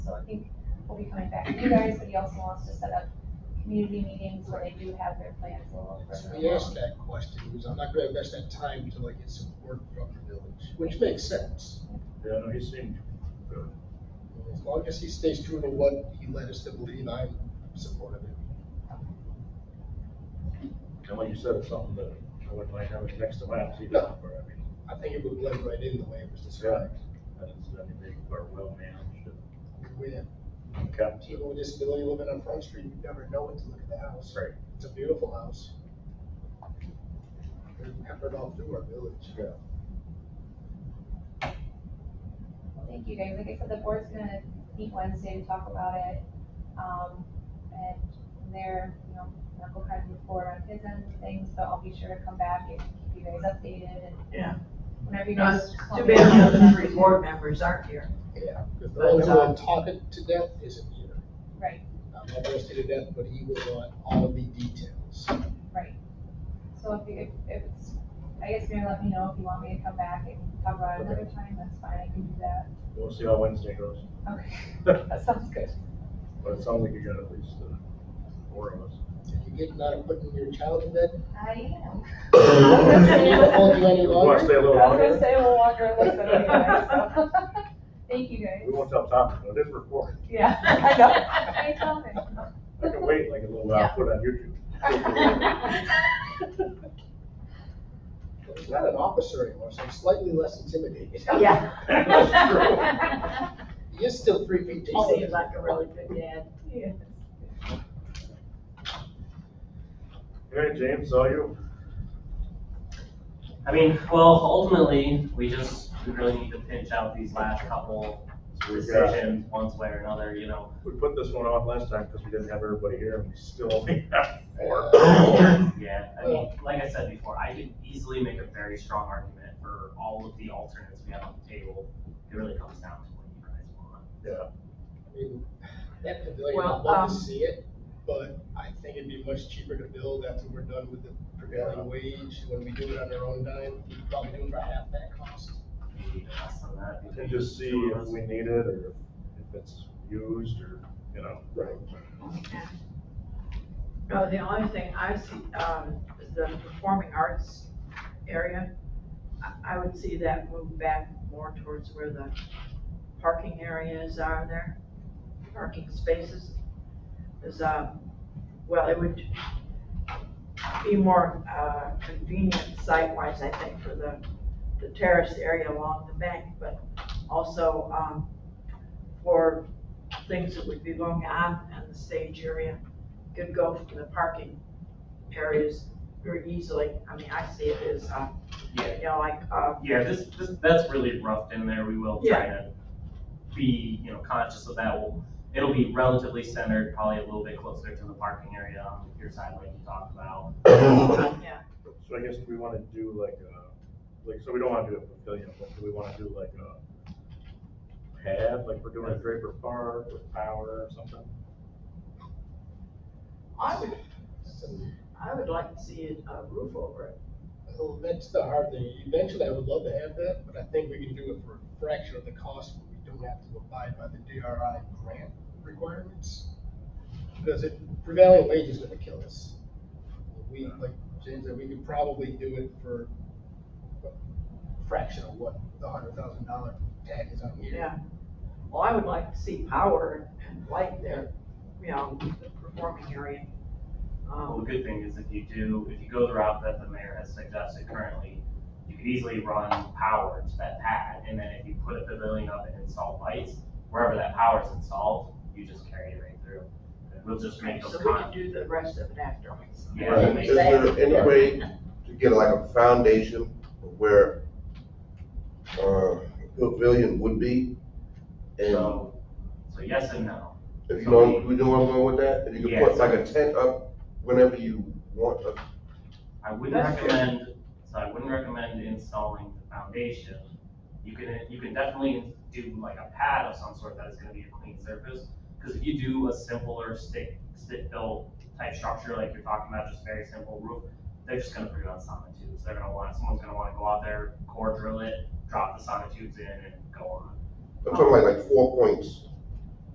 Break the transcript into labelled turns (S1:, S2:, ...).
S1: coming back to you guys, but he also wants to set up community meetings where they do have their plans a little further
S2: We asked
S1: along.
S2: that question, because I'm not gonna invest that time till I get some work from the village, which makes sense.
S3: Yeah, no, he seemed good.
S2: As long as he stays true to what he led us to believe, I'm supportive of it.
S3: And when you said it's something that I wouldn't mind having next to mine, see,
S2: No.
S3: but I mean,
S2: I think it would blend right in the way it was described.
S3: that is, I mean, they are well managed uh, and
S2: We have
S3: kept.
S2: people with disability living on Front Street, you never know what to look at the house.
S3: Right.
S2: It's a beautiful house. We've peppered all through our village.
S3: Yeah.
S1: Well, Thank you guys. Like I said, the board's gonna meet Wednesday to talk about it. Um, and from there, you know, Mark will kind of move forward on his end of things, but I'll be sure to come back and keep you guys updated and
S4: Yeah.
S1: whenever you
S4: No,
S1: guys.
S4: it's
S1: want
S4: Too
S1: me to
S4: bad
S1: know
S4: the other
S1: that-
S4: three board members aren't here.
S2: Yeah. Because
S4: But,
S2: the one
S4: um,
S2: who taught it to death isn't here.
S1: Right,
S2: I'm not roasted to death, but he will want all the details.
S1: right. So if, you- if, if it's, I guess you're gonna let me know if you want me to come back and talk about it another time, that's fine, I can do that.
S3: We'll see how Wednesday goes.
S1: Okay,
S3: But
S1: that sounds good.
S3: it sounds like you got at least uh, four of us.
S2: Did you get not putting your child to bed?
S1: I am.
S2: Hold you any
S3: We want to
S2: longer?
S3: stay a little
S1: I was gonna
S3: longer.
S1: say we'll walk around this anyway, so. Thank you guys.
S3: We won't tell Tom, but it is recorded.
S1: Yeah, I know. I tell them.
S3: I can wait like a little while, put it on YouTube.
S2: He's not an officer anymore, so I'm slightly less intimidated.
S4: Yeah.
S2: He is still three feet
S4: He
S2: tall.
S4: seems like a really good dad.
S1: Yes.
S3: All right, James, saw you.
S5: I mean, well, ultimately, we just, we really need to pinch out these last couple
S3: We got-
S5: decisions, once way or another, you know.
S3: We put this one on last time because we didn't have everybody here and we still only have four.
S5: Yeah, I mean, like I said before, I could easily make a very strong argument for all of the alternates we have on the table. It really comes down to what you guys want.
S3: Yeah,
S2: I mean, That pavilion, I'd
S4: Well,
S2: love to
S4: um,
S2: see it, but I think it'd be much cheaper to build after we're done with the prevailing wage. When we do it on our own dime, we probably do it for half that cost.
S5: Maybe less than that.
S3: and just see if we need it or if it's used or, you know.
S2: Right.
S4: No, the only thing I see, um, is the performing arts area. I, I would see that move back more towards where the parking areas are there, parking spaces. Is, uh, well, it would be more, uh, convenient site-wise, I think, for the, the terrace area along the bank, but also, um, for things that would be going on in the stage area could go from the parking areas very easily. I mean, I see it as, uh,
S5: Yeah,
S4: you know, like, uh,
S5: yeah, this, this, that's really roughed in there, we will try to be, you know, conscious of that, We'll- it'll be relatively centered, probably a little bit closer to the parking area on your side, like you talked about.
S4: yeah,
S3: So I guess we want to do like a, like, so we don't want to do a pavilion, but do we want to do like a pad, like we're doing at Draper Park with power or something?
S4: I would,
S2: That's a
S4: I would like to see a a roof over it.
S2: Well, that's the hard thing. Eventually, I would love to have that, but I think we can do it for a fraction of the cost when we don't have to abide by the DRI grant requirements. Because it, prevailing wage is gonna kill us. We, like James said, we could probably do it for a fraction of what the hundred thousand dollar tag is on here.
S4: Yeah. Well, I would like to see power and light there, you know, the performing area.
S5: Well, the
S4: Um,
S5: good thing is if you do, if you go the route that the mayor has suggested currently, you could easily run power to that pad, and then if you put a pavilion up and install lights, wherever that power's installed, you just carry it right through. We'll just make
S4: So
S5: those
S4: we can
S5: con,
S4: do the rest of it afterwards.
S5: yeah, we'll
S6: Right,
S5: make
S6: is there any way to get like a foundation where, uh, pavilion would be? And
S5: So, so yes and no.
S6: if you know, you know where I'm going with that, and you can
S5: Yes.
S6: put like a tent up whenever you want, uh,
S5: I wouldn't
S4: That's fair.
S5: recommend, so I wouldn't recommend installing the foundation. You can, you can definitely do like a pad of some sort that is gonna be a clean surface. Cause if you do a simpler stick, stick built type structure like you're talking about, just very simple roof, they're just gonna put it on sonotubes. They're gonna want, someone's gonna wanna go out there, core drill it, drop the sonotubes in and go on.
S6: I'm talking like, like four points.